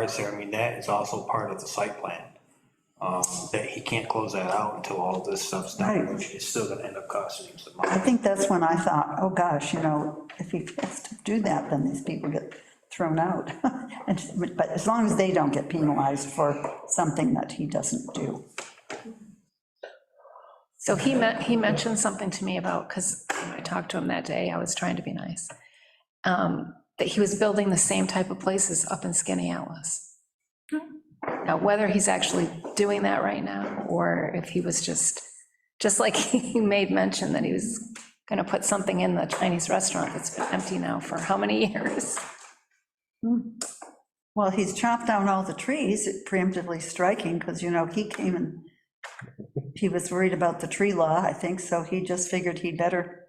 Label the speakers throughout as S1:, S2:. S1: parts there, I mean, that is also part of the site plan. Um, That he can't close that out until all of this stuff's done,
S2: Right.
S1: which is still gonna end up costing him some
S2: I
S1: money.
S2: think that's when I thought, oh gosh, you know, if he has to do that, then these people get thrown out. And- But as long as they don't get penalized for something that he doesn't do.
S3: So he met, he mentioned something to me about, because I talked to him that day, I was trying to be nice, um, that he was building the same type of places up in Skinny Alice. Now, whether he's actually doing that right now, or if he was just, just like he made mention that he was gonna put something in the Chinese restaurant that's been empty now for how many years?
S2: Well, he's chopped down all the trees, preemptively striking, because, you know, he came and he was worried about the tree law, I think, so he just figured he better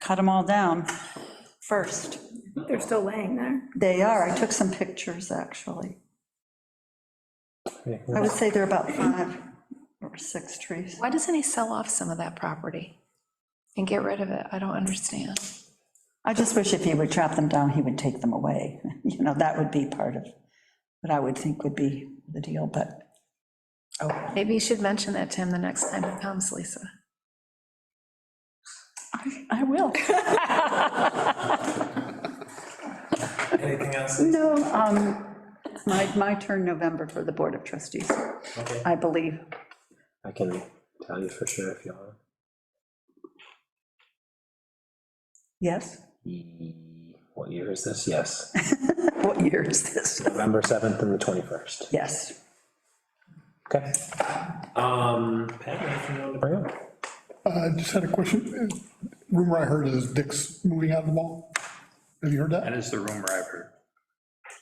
S2: cut them all down first.
S4: They're still laying there.
S2: They are, I took some pictures, actually. I would say there are about five or six trees.
S3: Why doesn't he sell off some of that property and get rid of it? I don't understand.
S2: I just wish if he would chop them down, he would take them away. You know, that would be part of what I would think would be the deal, but, oh,
S3: Maybe you should mention that to him the next time he comes, Lisa.
S2: I- I will.
S5: Anything else?
S2: No, um, it's my, my turn November for the Board of Trustees,
S5: Okay.
S2: I believe.
S5: I can tell you for sure if you want.
S2: Yes?
S5: What year is this? Yes,
S2: What year is this?
S5: November 7th and the 21st.
S2: Yes.
S5: Okay. Um, Pat, anything you want to bring up?
S6: I Uh, just had a question. Rumor I heard is Dick's moving out of the mall. Have you heard
S1: That
S6: that?
S1: is the rumor I've heard.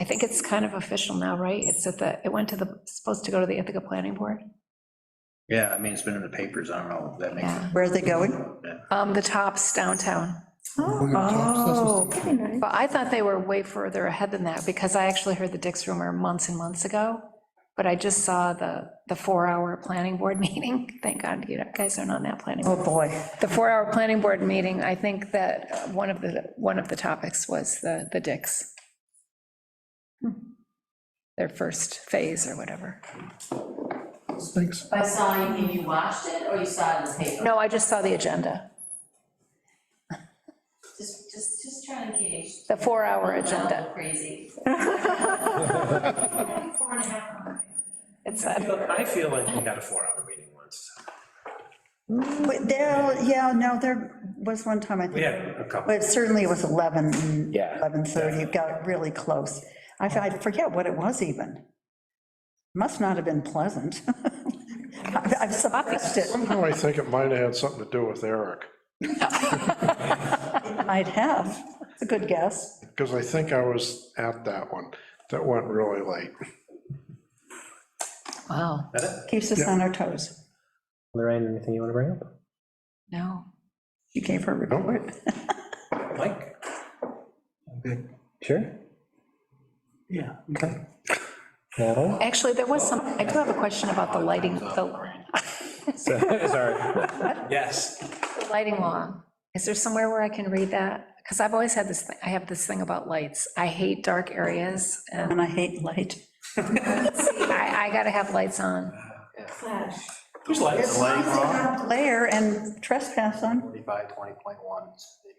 S3: I think it's kind of official now, right? It's at the, it went to the, supposed to go to the Ithaca Planning Board.
S1: Yeah, I mean, it's been in the papers, I don't know, if that makes
S3: Yeah.
S2: Where are they going?
S3: Um, the tops downtown.
S2: Oh,
S6: Moving to Tops, that's what's-
S4: Pretty nice.
S3: But I thought they were way further ahead than that because I actually heard the Dix rumor months and months ago. But I just saw the, the four-hour planning board meeting. Thank God you guys are not on that planning.
S2: Oh,
S3: board.
S2: boy.
S3: The four-hour planning board meeting, I think that uh, one of the, one of the topics was the, the Dix. Their first phase or whatever.
S6: Thanks.
S7: By saw, you mean you watched it, or you saw it in the paper?
S3: No, I just saw the agenda,
S7: Just, just, just trying to gauge.
S3: the four-hour
S7: Well,
S3: agenda.
S7: Crazy. Four and a half hours.
S3: It said.
S5: I feel like we got a four-hour meeting once.
S2: But there, yeah, no, there was one time, I think.
S5: We had a couple.
S2: But certainly it was 11, and
S5: Yeah.
S2: 11:30, it got really close. I f- I forget what it was even. Must not have been pleasant. I've I've suppressed it,
S8: Somehow Oh, I think it might have had something to do with Eric,
S2: might have, it's a good guess.
S8: because I think I was at that one, that went really late.
S3: Wow,
S2: Keeps us on our toes.
S5: Lorraine, anything you want to bring up?
S3: no.
S2: She gave her report.
S5: Mike? Sure?
S1: Yeah.
S5: Okay. Natalie?
S3: Actually, there was some, I do have a question about the lighting, the
S5: So- Sorry. Yes.
S3: the lighting law. Is there somewhere where I can read that? Because I've always had this, thing. I have this thing about lights. I hate dark areas, and
S2: And I hate light.
S3: I, I gotta have lights on.
S4: Flash.
S5: There's lights.
S2: Glare and trespass on,
S1: Forty-five, twenty point one.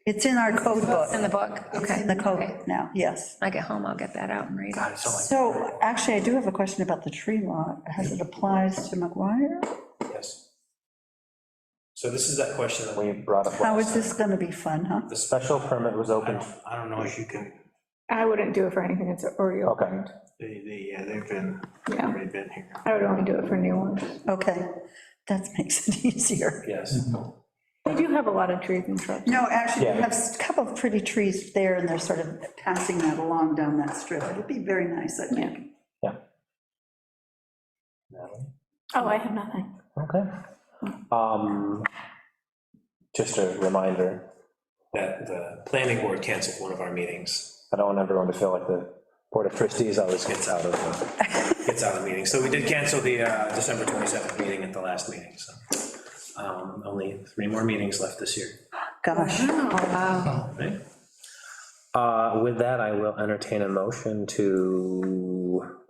S2: it's in our code
S3: In
S2: book,
S3: the book, okay.
S2: in the
S3: okay.
S2: code now, yes.
S3: When I get home, I'll get that out and read it.
S1: God, it's something
S2: So actually, I do have a question about the tree law, as it applies to McGuire?
S5: Yes. So this is that question that we brought up.
S2: How
S5: last
S2: is this going to be fun, huh?
S5: time. The special permit was
S1: I
S5: open.
S1: don't, I don't know if you can,
S4: I wouldn't do it for anything that's already
S5: Okay.
S4: opened.
S1: they, they, yeah, they've been,
S4: Yeah.
S1: already been here.
S4: I would only do it for new ones.
S2: Okay, that makes it easier.
S5: Yes.
S4: They do have a lot of trees and shrubs.
S2: No, actually, we
S5: Yeah.
S2: have a couple of pretty trees there, and they're sort of passing that along down that strip. It'd be very nice, I think.
S5: Natalie?
S4: Oh, I have nothing.
S5: Okay. Um, Just a reminder that the planning board canceled one of our meetings. I don't want everyone to feel like the Board of Trustees always gets out of, uh, gets out of meetings. So we did cancel the uh, December 27th meeting at the last meeting, so. um, Only three more meetings left this year,
S2: Gosh,
S3: Oh, wow.
S5: right? Uh, With that, I will entertain a motion to